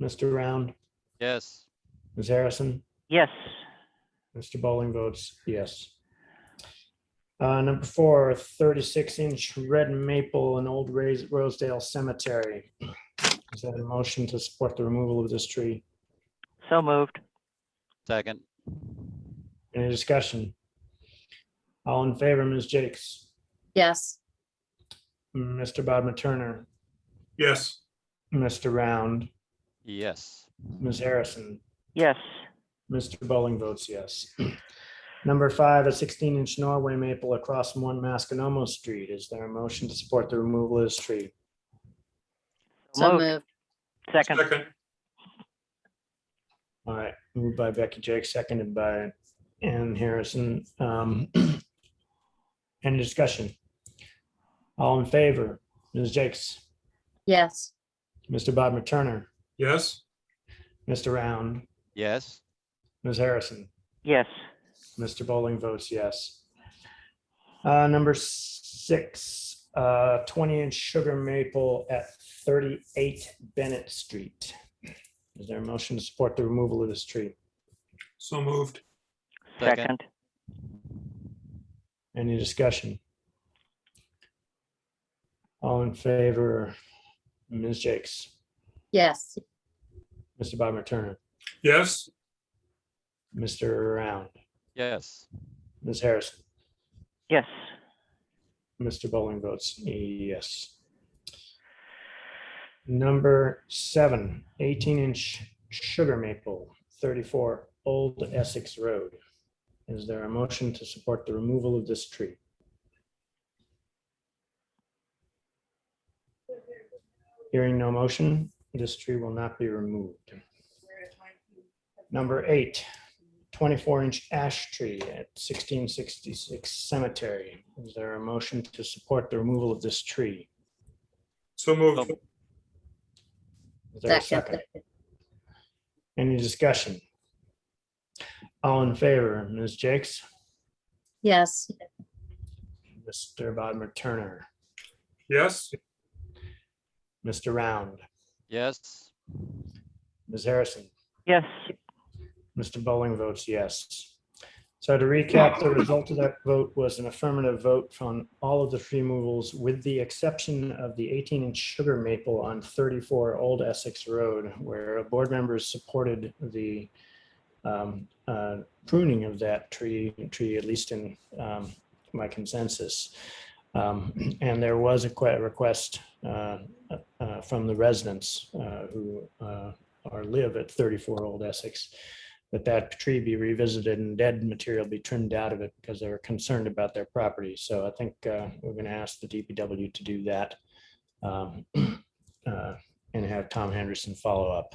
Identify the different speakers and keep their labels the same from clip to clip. Speaker 1: Mr. Round,
Speaker 2: Yes.
Speaker 1: Ms. Harrison,
Speaker 3: Yes.
Speaker 1: Mr. Bowling votes yes. Uh, Number four, 36-inch red maple in Old Rais- Rosedale Cemetery. Is that a motion to support the removal of this tree?
Speaker 3: So moved.
Speaker 2: Second.
Speaker 1: Any discussion? All in favor, Ms. Jakes,
Speaker 4: yes,
Speaker 1: Mr. Bodmer Turner,
Speaker 5: yes,
Speaker 1: Mr. Round,
Speaker 2: Yes.
Speaker 1: Ms. Harrison,
Speaker 3: Yes.
Speaker 1: Mr. Bowling votes yes. Number five, a sixteen inch Norway maple across from one Masconomo Street. Is there a motion to support the removal of this tree?
Speaker 4: so
Speaker 3: Moved.
Speaker 4: moved,
Speaker 3: Second.
Speaker 5: second,
Speaker 1: All right, moved by Becky Jake, seconded by Ann Harrison. Um, Any discussion? All in favor, Ms. Jakes,
Speaker 4: yes,
Speaker 1: Mr. Bob Turner,
Speaker 5: yes,
Speaker 1: Mr. Round,
Speaker 2: Yes.
Speaker 1: Ms. Harrison.
Speaker 3: Yes.
Speaker 1: Mr. Bowling votes yes. Uh, number six, uh, twenty inch sugar maple at thirty-eight Bennett Street. Is there a motion to support the removal of this tree?
Speaker 5: so moved,
Speaker 2: Second.
Speaker 3: Second.
Speaker 1: Any discussion? All in favor, Ms. Jakes,
Speaker 4: yes,
Speaker 1: Mr. Bob Turner,
Speaker 5: yes,
Speaker 1: Mr. Round,
Speaker 2: Yes.
Speaker 1: Ms. Harrison.
Speaker 3: Yes.
Speaker 1: Mr. Bowling votes yes. Number seven, 18-inch sugar maple, 34 Old Essex Road. Is there a motion to support the removal of this tree? Hearing no motion, this tree will not be removed. Number eight, 24-inch ash tree at 1666 Cemetery. Is there a motion to support the removal of this tree?
Speaker 5: so moved,
Speaker 1: Is there a
Speaker 4: Second.
Speaker 1: second? Any discussion? All in favor, Ms. Jakes,
Speaker 4: yes,
Speaker 1: Mr. Bodmer Turner,
Speaker 5: yes,
Speaker 1: Mr. Round,
Speaker 2: Yes.
Speaker 1: Ms. Harrison,
Speaker 3: Yes.
Speaker 1: Mr. Bowling votes yes. So to recap, the result of that vote was an affirmative vote on all of the tree removals with the exception of the 18-inch sugar maple on 34 Old Essex Road, where board members supported the um, uh, pruning of that tree, tree at least in um, my consensus. Um, And there was a que- request uh, uh, from the residents uh, who uh, are live at 34 Old Essex that that tree be revisited and dead material be trimmed out of it because they were concerned about their property. So I think uh, we're going to ask the DPW to do that um, uh, and have Tom Henderson follow up.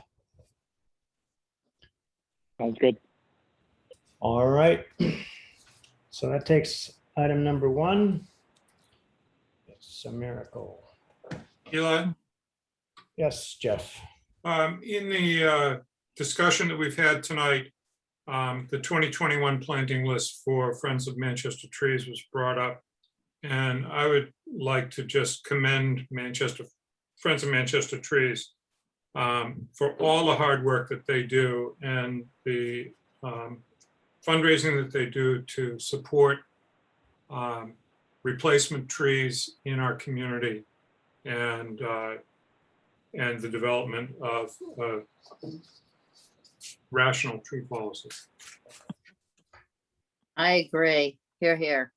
Speaker 3: Sounds good.
Speaker 1: All right. So that takes item number one. It's a miracle.
Speaker 5: Eli?
Speaker 1: Yes, Jeff.
Speaker 5: Um, in the, uh, discussion that we've had tonight, um, the twenty twenty-one planting list for Friends of Manchester Trees was brought up. And I would like to just commend Manchester, Friends of Manchester Trees um, for all the hard work that they do and the, um, fundraising that they do to support, um, replacement trees in our community. And, uh, and the development of uh, rational tree policy.
Speaker 4: I agree, here, here,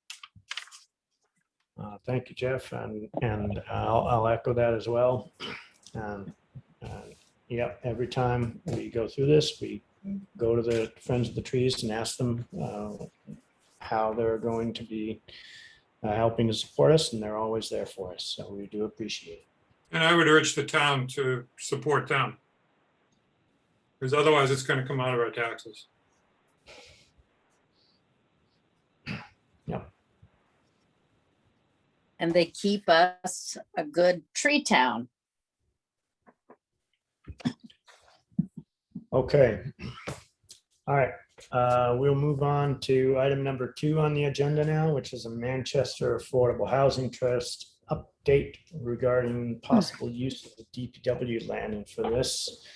Speaker 1: Uh, Thank you, Jeff, and, and I'll, I'll echo that as well. Um, uh, Yep, every time we go through this, we go to the Friends of the Trees and ask them uh, how they're going to be uh, helping to support us, and they're always there for us, so we do appreciate it.
Speaker 5: And I would urge the town to support them. Because otherwise, it's going to come out of our taxes.
Speaker 4: and they keep us a good tree town.
Speaker 1: Okay. All right, uh, we'll move on to item number two on the agenda now, which is a Manchester Affordable Housing Trust update regarding possible use of the DPW land. And for this,